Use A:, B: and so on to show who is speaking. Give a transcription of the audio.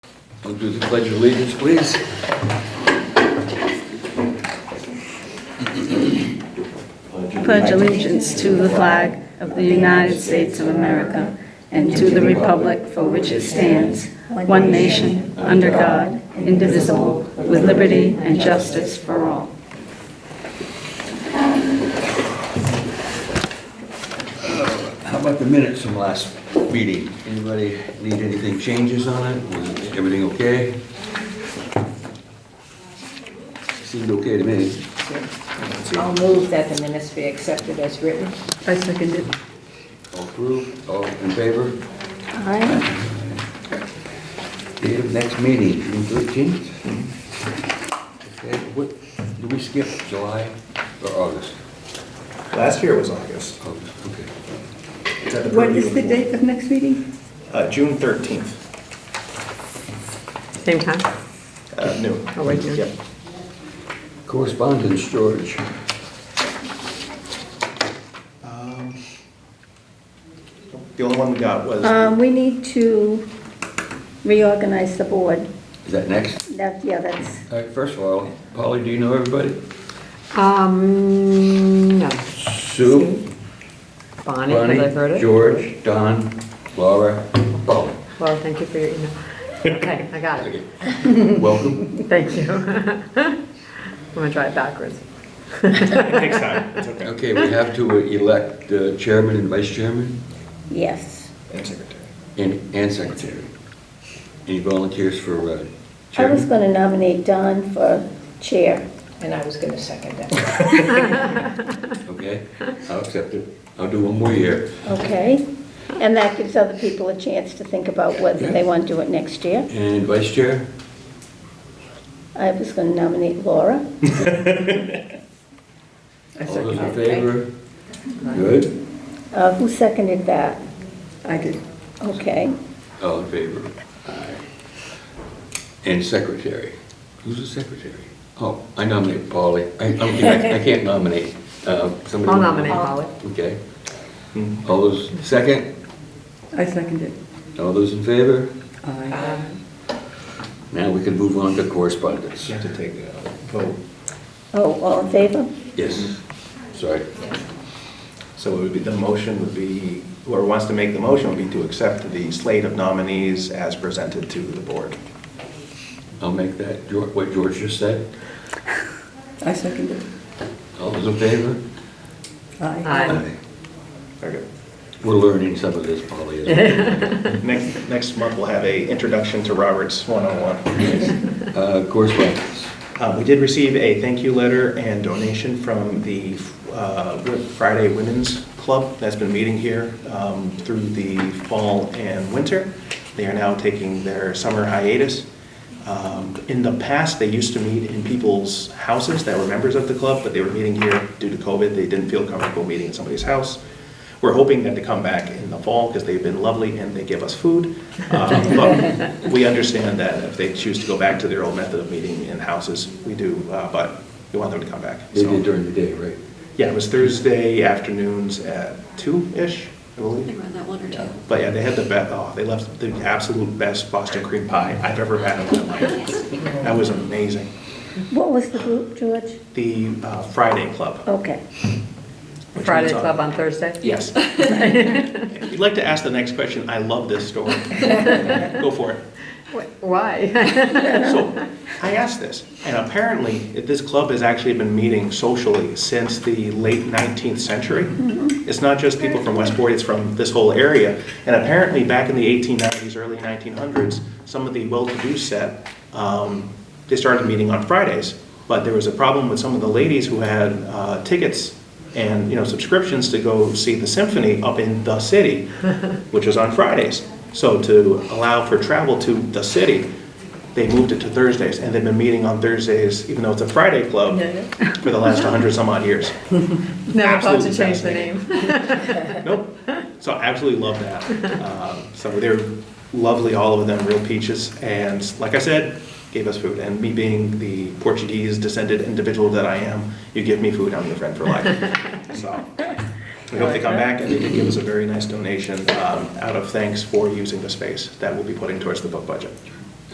A: We'll do the pledge of allegiance, please.
B: pledge allegiance to the flag of the United States of America and to the republic for which it stands, one nation, under God, indivisible, with liberty and justice for all.
A: How about the minutes from last meeting? Anybody need anything changes on it? Was everything okay? Seemed okay to me.
C: I'll move that the minutes be accepted as written.
B: I second it.
A: All approved, all in favor?
B: Aye.
A: Date of next meeting, June thirteenth? Okay, what, did we skip July or August?
D: Last year was August.
A: August, okay.
D: It's at the
B: What
D: purview
B: is
D: of
B: the
D: board.
B: date of next meeting?
D: Uh, June thirteenth,
E: Same time?
D: uh, noon.
E: Oh, right there.
D: Yep.
A: Correspondence, George.
D: Um, The only one we got was,
F: Um, we need to reorganize the board.
A: Is that next?
F: That, yeah, that's,
A: All right, first of all, Polly, do you know everybody?
E: Um, no.
A: Sue?
E: Bonnie, because I've heard it.
A: George, Don, Laura, Paul.
E: Well, thank you for your email. Okay, I got it.
A: Welcome.
E: Thank you. I'm gonna try it backwards.
D: it takes time, it's okay.
A: Okay, we have to elect uh, chairman and vice chairman
F: yes.
D: And secretary.
A: and, and secretary. Any volunteers for uh,
F: I was
A: chairman?
F: gonna nominate Don for chair.
C: And I was going to second that.
A: Okay, I'll accept it. I'll do one more year.
F: Okay. And that gives other people a chance to think about whether they want to do it next year.
A: And vice chair?
F: I was gonna nominate Laura.
A: All those in favor? Good?
F: Uh, who seconded that?
B: I did.
F: Okay.
A: All in favor? Aye. And secretary? Who's the secretary? Oh, I nominate Polly. I I don't think, I- I can't nominate. uh, somebody
E: I'll
A: want-
E: nominate Holly.
A: Okay. All those, second?
B: I second it.
A: All those in favor?
B: Aye.
A: Now we can move on to correspondence.
D: You have to take a vote,
F: Oh, all in favor?
A: Yes, sorry.
D: so it would be, the motion would be, whoever wants to make the motion would be to accept the slate of nominees as presented to the board.
A: I'll make that, Geor- what George just said.
B: I second it.
A: All those in favor?
E: Aye.
D: Very
A: We're learning some of this, Polly. as
D: good. Next, next month, we'll have a introduction to Roberts 101.
A: well. Uh, Correspondence.
D: Uh, We did receive a thank you letter and donation from the uh, Wi- Friday Women's Club that's been meeting here um, through the fall and winter. They are now taking their summer hiatus. Um, In the past, they used to meet in people's houses that were members of the club, but they were meeting here due to COVID. They didn't feel comfortable meeting in somebody's house. We're hoping that they come back in the fall because they've been lovely and they give us food. Um, But we understand that if they choose to go back to their old method of meeting in houses, we do, uh, but we want them to come back.
A: They
D: So-
A: did during the day, right?
D: Yeah, it was Thursday afternoons at two-ish, I believe.
G: around that one or two.
D: But yeah, they had the best, oh, they left the absolute best Boston cream pie I've ever had in my life. That was amazing.
F: What was the group, George?
D: The uh, Friday Club.
F: Okay.
D: which
E: Friday
D: means on-
E: club on Thursday?
D: Yes. If you'd like to ask the next question, I love this story. Go for it.
E: Wh- Why?
D: So, I asked this, and apparently, it- this club has actually been meeting socially since the late 19th century. It's not just people from Westport, it's from this whole area. And apparently, back in the 1890s, early 1900s, some of the well-to-do set, um, they started meeting on Fridays. But there was a problem with some of the ladies who had uh, tickets and, you know, subscriptions to go see the symphony up in the city, which was on Fridays. So to allow for travel to the city, they moved it to Thursdays, and they've been meeting on Thursdays, even though it's a Friday club, for the last 100 some odd years.
E: Never thought to
D: Absolutely
E: change the name.
D: fascinating. Nope. So I absolutely love that. Uh, So they're lovely, all of them, real peaches. And like I said, gave us food. And me being the Portuguese descended individual that I am, you give me food, I'm your friend for life. So we hope they come back, and they did give us a very nice donation um, out of thanks for using the space that we'll be putting towards the book budget.